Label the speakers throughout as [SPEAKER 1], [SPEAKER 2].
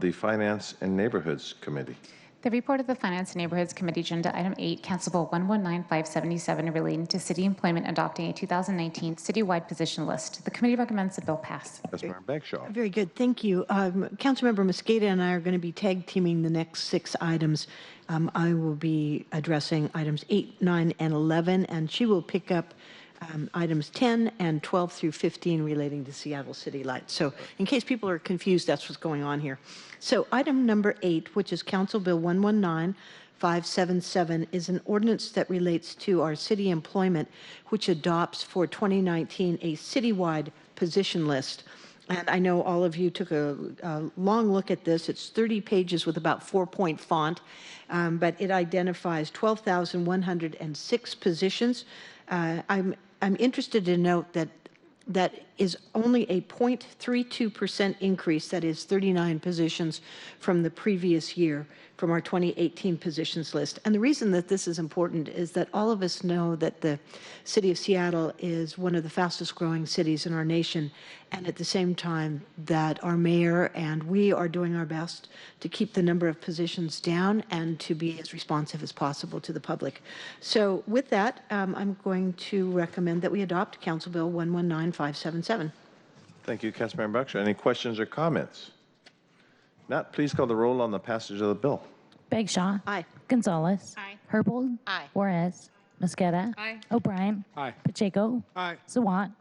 [SPEAKER 1] the Finance and Neighborhoods Committee.
[SPEAKER 2] The report of the Finance and Neighborhoods Committee, Agenda Item 8, Council Bill 119577, relating to city employment adopting a 2019 citywide position list. The committee recommends the bill pass.
[SPEAKER 1] Councilmember Bagshaw.
[SPEAKER 3] Very good, thank you. Um, Councilmember Mosqueda and I are going to be tag teaming the next six items. Um, I will be addressing items eight, nine, and 11, and she will pick up um, items 10 and 12 through 15 relating to Seattle City Lights. So in case people are confused, that's what's going on here. So item number eight, which is Council Bill 119, 577 is an ordinance that relates to our city employment, which adopts for 2019 a citywide position list. And I know all of you took a, a long look at this. It's 30 pages with about four point font, um, but it identifies 12,106 positions. Uh, I'm, I'm interested to note that that is only a 0.32% increase, that is 39 positions from the previous year, from our 2018 positions list. And the reason that this is important is that all of us know that the city of Seattle is one of the fastest growing cities in our nation, and at the same time, that our mayor and we are doing our best to keep the number of positions down and to be as responsive as possible to the public. So with that, um, I'm going to recommend that we adopt Council Bill 119577.
[SPEAKER 1] Thank you, Councilmember Bagshaw. Any questions or comments? Not, please call the roll on the passage of the bill.
[SPEAKER 4] Bagshaw.
[SPEAKER 3] Aye.
[SPEAKER 4] Gonzalez.
[SPEAKER 2] Aye.
[SPEAKER 4] Herbold.
[SPEAKER 3] Aye.
[SPEAKER 4] Juarez. Mosqueda.
[SPEAKER 2] Aye.
[SPEAKER 4] O'Brien.
[SPEAKER 5] Aye.
[SPEAKER 4] Pacheco.
[SPEAKER 5] Aye.
[SPEAKER 4] Zawant.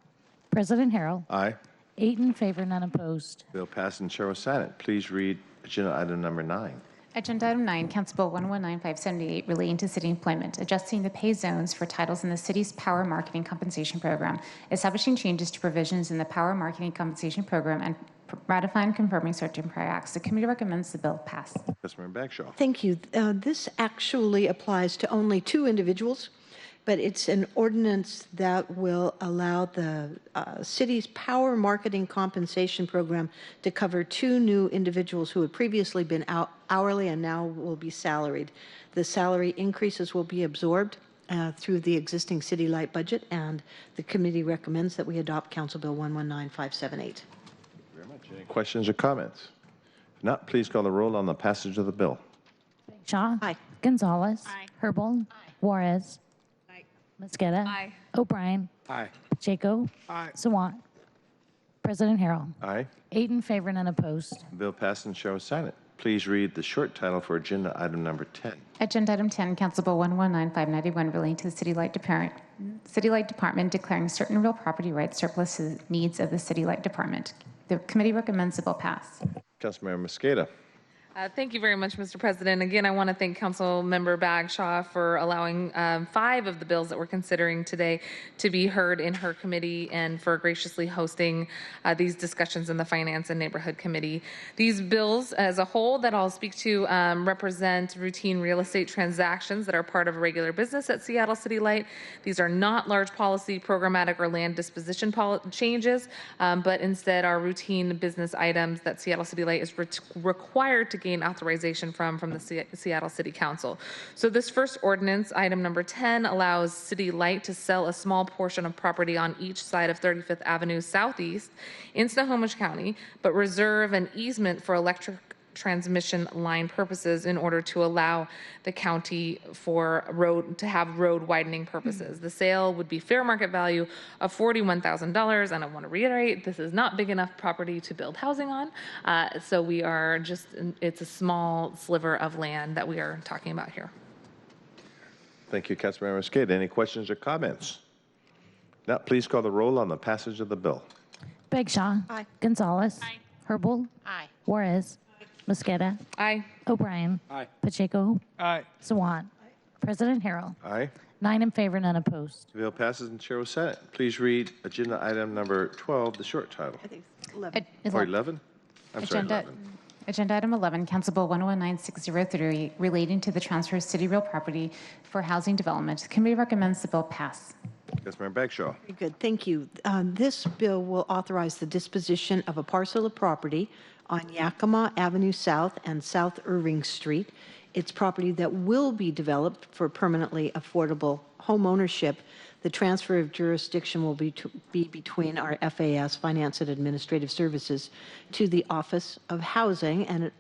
[SPEAKER 4] President Harrell.
[SPEAKER 1] Aye.
[SPEAKER 4] Eight in favor, none opposed.
[SPEAKER 1] Bill passed and Chair will sign it. Please read agenda item number nine.
[SPEAKER 2] Agenda Item 9, Council Bill 119578, relating to city employment, adjusting the pay zones for titles in the city's power marketing compensation program, establishing changes to provisions in the power marketing compensation program, and ratifying and confirming certain prior acts. The committee recommends the bill pass.
[SPEAKER 1] Councilmember Bagshaw.
[SPEAKER 3] Thank you. Uh, This actually applies to only two individuals, but it's an ordinance that will allow the uh, city's power marketing compensation program to cover two new individuals who had previously been hou- hourly and now will be salaried. The salary increases will be absorbed uh, through the existing city light budget, and the committee recommends that we adopt Council Bill 119578.
[SPEAKER 1] Any questions or comments? If not, please call the roll on the passage of the bill.
[SPEAKER 4] Shaw.
[SPEAKER 3] Aye.
[SPEAKER 4] Gonzalez. Herbold. Juarez. Mosqueda. O'Brien.
[SPEAKER 5] Aye.
[SPEAKER 4] Pacheco.
[SPEAKER 5] Aye.
[SPEAKER 4] Sawant. President Harrell.
[SPEAKER 1] Aye.
[SPEAKER 4] Eight in favor, none opposed.
[SPEAKER 1] Bill passed and Chair will sign it. Please read the short title for agenda item number 10.
[SPEAKER 2] Agenda Item 10, Council Bill 119591, relating to the City Light Department, City Light Department declaring certain real property rights surplus to the needs of the City Light Department. The committee recommends the bill pass.
[SPEAKER 1] Councilmember Mosqueda.
[SPEAKER 6] Uh, Thank you very much, Mr. President. Again, I want to thank Councilmember Bagshaw for allowing um, five of the bills that we're considering today to be heard in her committee and for graciously hosting uh, these discussions in the Finance and Neighborhood Committee. These bills, as a whole, that I'll speak to um, represent routine real estate transactions that are part of regular business at Seattle City Light. These are not large policy, programmatic, or land disposition pol- changes, um, but instead are routine business items that Seattle City Light is ret- required to gain authorization from from the Se- Seattle City Council. So this first ordinance, item number 10, allows City Light to sell a small portion of property on each side of 35th Avenue Southeast in Snohomish County, but reserve an easement for electric transmission line purposes in order to allow the county for road to have road widening purposes. The sale would be fair market value of $41,000 and I want to reiterate this is not big enough property to build housing on. Uh, so we are just it's a small sliver of land that we are talking about here.
[SPEAKER 1] Thank you, Councilmember Mosqueda. Any questions or comments? If Not, please call the roll on the passage of the bill.
[SPEAKER 4] Bagshaw.
[SPEAKER 3] Aye.
[SPEAKER 4] Gonzalez. Aye. Herbold. Aye. Juarez. Mosqueda.
[SPEAKER 6] Aye.
[SPEAKER 4] O'Brien.
[SPEAKER 5] Aye.
[SPEAKER 4] Pacheco.
[SPEAKER 5] Aye.
[SPEAKER 4] Sawant. President Harrell.
[SPEAKER 1] Aye.
[SPEAKER 4] Nine in favor, none opposed.
[SPEAKER 1] The bill passes and Chair will sign it. Please read agenda item number 12, the short title.
[SPEAKER 2] Ag-
[SPEAKER 1] Or 11? I'm sorry,
[SPEAKER 2] Agenda,
[SPEAKER 1] 11.
[SPEAKER 2] Agenda Item 11, Council Bill 119603, relating to the transfer of city real property for housing development. The committee recommends the bill pass.
[SPEAKER 1] Councilmember Bagshaw.
[SPEAKER 3] Very good, thank you. Uh, This bill will authorize the disposition of a parcel of property on Yakima Avenue South and South Irving Street. It's property that will be developed for permanently affordable homeownership. The transfer of jurisdiction will be to- be between our FAS, Finance and Administrative Services, to the Office of Housing, and it